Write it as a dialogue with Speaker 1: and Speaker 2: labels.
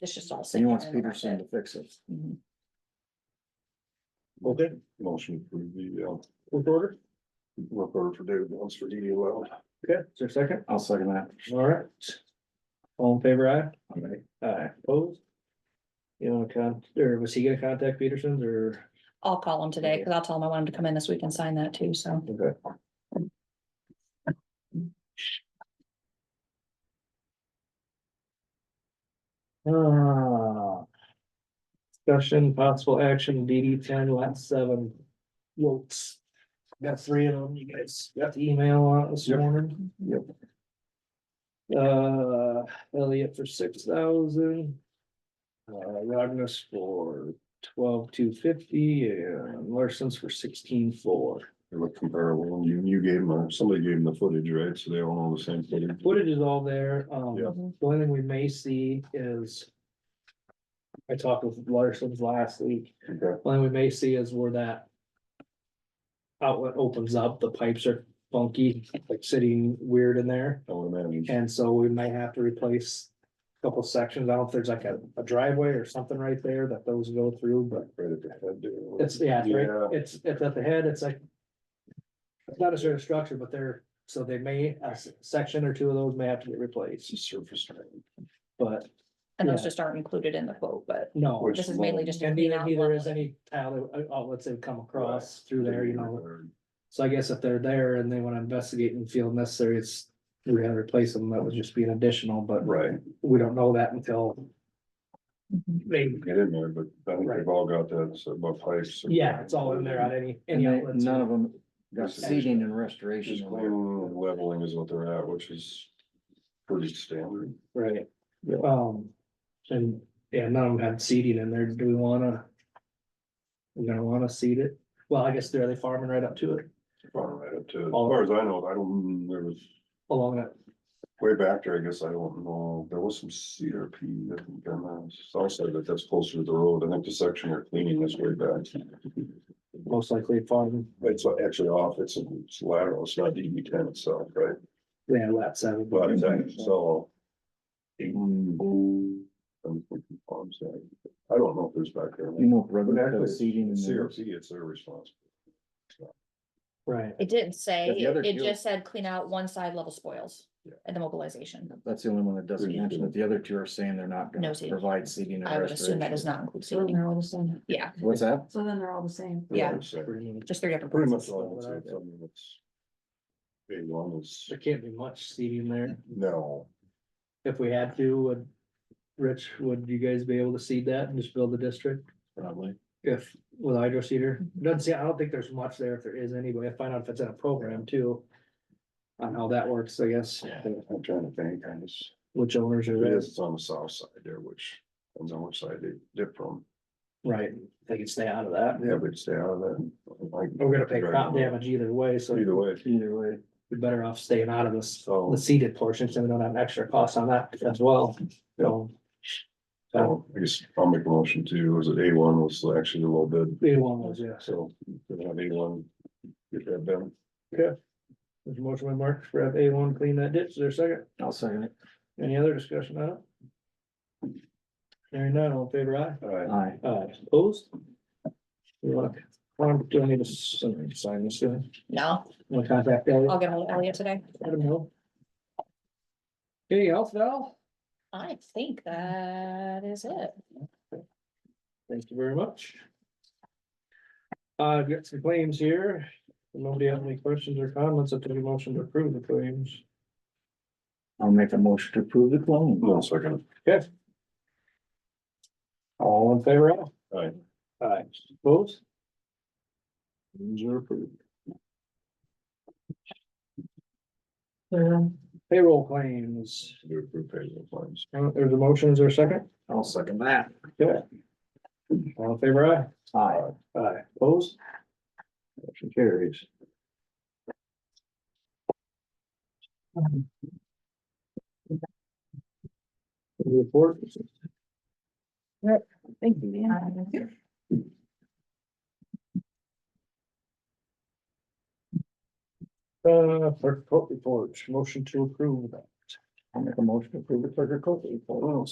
Speaker 1: It's just all.
Speaker 2: He
Speaker 1: sitting
Speaker 2: wants
Speaker 1: in the
Speaker 2: Peterson to
Speaker 1: budget.
Speaker 2: fix it.
Speaker 1: Mhm.
Speaker 3: Okay.
Speaker 4: Motion for the, uh,
Speaker 3: Work order?
Speaker 4: work order for David Jones for E DDL.
Speaker 3: Is there a second?
Speaker 2: I'll second that.
Speaker 3: All right. All in favor, aye?
Speaker 2: All right.
Speaker 3: Aye. Opposed? You want to con, or was he gonna contact Peterson's or?
Speaker 1: I'll call him today, because I'll tell him I want him to come in this week and sign that too, so.
Speaker 3: Okay. Ah. Discussion, possible action, DD ten, lot seven. Wilts. Got three of them, you guys got the email on it this
Speaker 2: Yep.
Speaker 3: morning?
Speaker 2: Yep.
Speaker 3: Uh, Elliot for six thousand. Uh, Rognus for twelve two fifty and Larson's for sixteen four.
Speaker 4: They look comparable, and you, you gave them, uh, somebody gave them the footage, right, so they all know the same footage.
Speaker 3: Footage is all there, um.
Speaker 4: Yeah.
Speaker 1: Mhm.
Speaker 3: The only thing we may see is. I talked with Larson's last week,
Speaker 4: Okay.
Speaker 3: The only we may see is where that. Outlet opens up, the pipes are funky, like sitting weird in there,
Speaker 4: I would imagine,
Speaker 3: and so we might have to replace. a Couple sections, I don't know if there's like a, a driveway or something right there that those go through, but
Speaker 4: right at the head there.
Speaker 3: it's, yeah, it's,
Speaker 4: Yeah.
Speaker 3: right- it's, it's at the head, it's like. It's not a certain structure, but they're, so they may, a s- section or two of those may have to get replaced,
Speaker 4: It's a surface. drain.
Speaker 3: but
Speaker 1: And those
Speaker 3: Yeah.
Speaker 1: just aren't included in the quote, but
Speaker 3: no.
Speaker 4: Which
Speaker 1: this is mainly just. to
Speaker 3: And
Speaker 1: clean
Speaker 3: neither,
Speaker 1: out
Speaker 3: neither
Speaker 1: one
Speaker 3: is
Speaker 1: little-
Speaker 3: any tile, that- uh, outlets that have come across through there, you know, so I guess if they're there and they wanna investigate and feel necessary, it's. We're gonna replace them, that would just be an additional, but
Speaker 4: Right,
Speaker 3: we don't know that until
Speaker 1: Mhm.
Speaker 3: they,
Speaker 4: get in there, but I think
Speaker 3: Right.
Speaker 4: they've all got that, so about pipes.
Speaker 3: yeah, it's all in there on any,
Speaker 2: And
Speaker 3: any
Speaker 2: they-
Speaker 3: outlets.
Speaker 2: none of them got
Speaker 4: Just-
Speaker 2: seating and
Speaker 4: Just
Speaker 2: restoration.
Speaker 4: clean leveling is what they're at, which is pretty standard.
Speaker 3: Right.
Speaker 2: Yeah.
Speaker 3: Um, and, yeah, none of them had seating in there, do we wanna? We're gonna wanna seat it, well, I guess they're, they farming right up to it,
Speaker 4: Far right up to, as
Speaker 3: All-
Speaker 4: far as I know, I don't, there was
Speaker 3: along that,
Speaker 4: way back there, I guess, I don't know, there was some CRP that we got on the south side, but that's closer to the road, I think the section they're cleaning is way back.
Speaker 3: most likely farming,
Speaker 4: It's actually off, it's it's lateral, it's not DB ten itself, right?
Speaker 3: yeah, lap seven.
Speaker 4: But it's actually
Speaker 2: Mm-hmm.
Speaker 4: so. mm, I'm thinking farm side. I don't know if there's back there.
Speaker 2: You know, rubber
Speaker 4: But
Speaker 2: got
Speaker 4: actually,
Speaker 2: seating and
Speaker 4: CRC, it's their response.
Speaker 3: Right,
Speaker 1: It didn't say,
Speaker 2: Yeah, the other
Speaker 1: it it
Speaker 2: two-
Speaker 1: just said clean out one side level spoils
Speaker 4: Yeah.
Speaker 1: and the mobilization.
Speaker 2: that's the only one that doesn't
Speaker 4: Pretty
Speaker 2: mention
Speaker 4: good.
Speaker 2: it. The other two are saying they're not
Speaker 1: No
Speaker 2: gonna
Speaker 1: seating.
Speaker 2: provide seating
Speaker 1: I
Speaker 2: and
Speaker 1: would assume that does
Speaker 2: restoration.
Speaker 1: not include
Speaker 5: So then
Speaker 1: seating.
Speaker 5: they're all the same.
Speaker 1: Yeah,
Speaker 2: What's that?
Speaker 5: So then they're all the same.
Speaker 1: Yeah.
Speaker 4: So,
Speaker 1: just three different.
Speaker 4: Pretty much
Speaker 1: places.
Speaker 4: all, it's, it's, I mean, it's. Big one is,
Speaker 3: there can't be much seating there,
Speaker 4: no,
Speaker 3: if we had to, would. Rich, would you guys be able to seed that and just build the district
Speaker 2: Probably.
Speaker 3: if, with hydro seeder?
Speaker 1: Mhm.
Speaker 3: Doesn't see, I don't think there's much there, if there is anyway, I find out if it's in a program too. On how that works, I guess,
Speaker 4: I'm trying to think, I just.
Speaker 3: which owners are
Speaker 4: It
Speaker 3: there.
Speaker 4: is, it's on the south side there, which, depends on which side they dip from,
Speaker 3: Right, they can stay out of that.
Speaker 4: yeah, but stay out of that. like-
Speaker 3: We're gonna pay crop damage either way, so
Speaker 4: Either way,
Speaker 2: Either way.
Speaker 3: we're better off staying out of this,
Speaker 4: so,
Speaker 3: the seeded portion, so we don't have an extra cost on that as well, so.
Speaker 4: so I guess I'll make a motion to, was it A one was actually a little bit,
Speaker 3: Either one was, yes.
Speaker 4: so, we have A one. Get that done,
Speaker 3: There's a motion by Mark for F A one, clean that ditch, is there a second?
Speaker 2: I'll second it.
Speaker 3: Any other discussion on it? Hearing none, all in favor aye?
Speaker 4: alright,
Speaker 2: Aye.
Speaker 3: Aye, opposed? We want, um, do I need to sign sign this, do
Speaker 1: No,
Speaker 3: I want to contact Elliot?
Speaker 1: I'll get ahold of Elliot today.
Speaker 3: Let him know. Anything else, Val?
Speaker 1: I think that is it.
Speaker 3: Thank you very much. Uh, I've got some claims here. If Nobody have any questions or comments? I'll take a motion to approve the claims.
Speaker 2: I'll make a motion to approve the loan.
Speaker 4: one second,
Speaker 3: All in favor?
Speaker 4: alright.
Speaker 3: Aye. Opposed?
Speaker 4: You're approved.
Speaker 3: Payroll claims.
Speaker 4: You're approved payroll claims.
Speaker 3: Uh, There's a motion. Is there a second?
Speaker 2: I'll second that.
Speaker 3: All in favor?
Speaker 2: Aye.
Speaker 3: Aye. Aye. Opposed?
Speaker 4: Motion carries.
Speaker 3: Report.
Speaker 5: Thank you, man.
Speaker 3: Uh, clerk report. Motion to approve that.
Speaker 2: I'll make a motion to approve the clerk of court report.